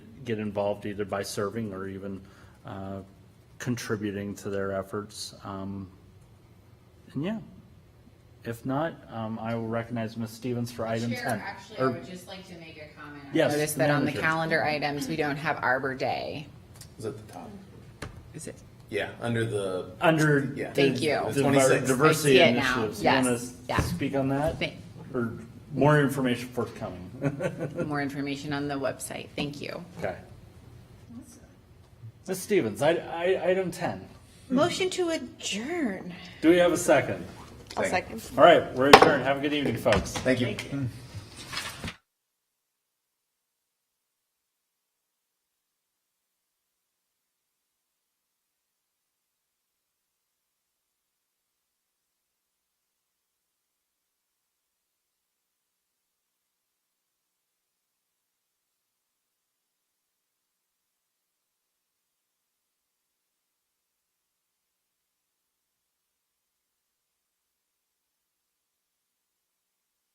get involved either by serving or even uh, contributing to their efforts. Um, And yeah, if not, um, I will recognize Ms. Stevens for item Chair, 10. actually, I Or- would just like to make a comment. on Yes. Notice that on the manager. calendar items, we don't have Arbor Day. Is at the top. Is it? Yeah, under the. Under. Yeah. Uh, Thank you. diver- 26. Diversity I see it now. initiatives. You want Yes. Yeah. to speak on that? Thank- Or more information forthcoming? More information on the website. Thank you. Okay. Ms. Stevens, I, I, item ten. Motion to adjourn. Do we have a second? I'll Second. second. All right, we're adjourned. Have a good evening, folks. Thank you.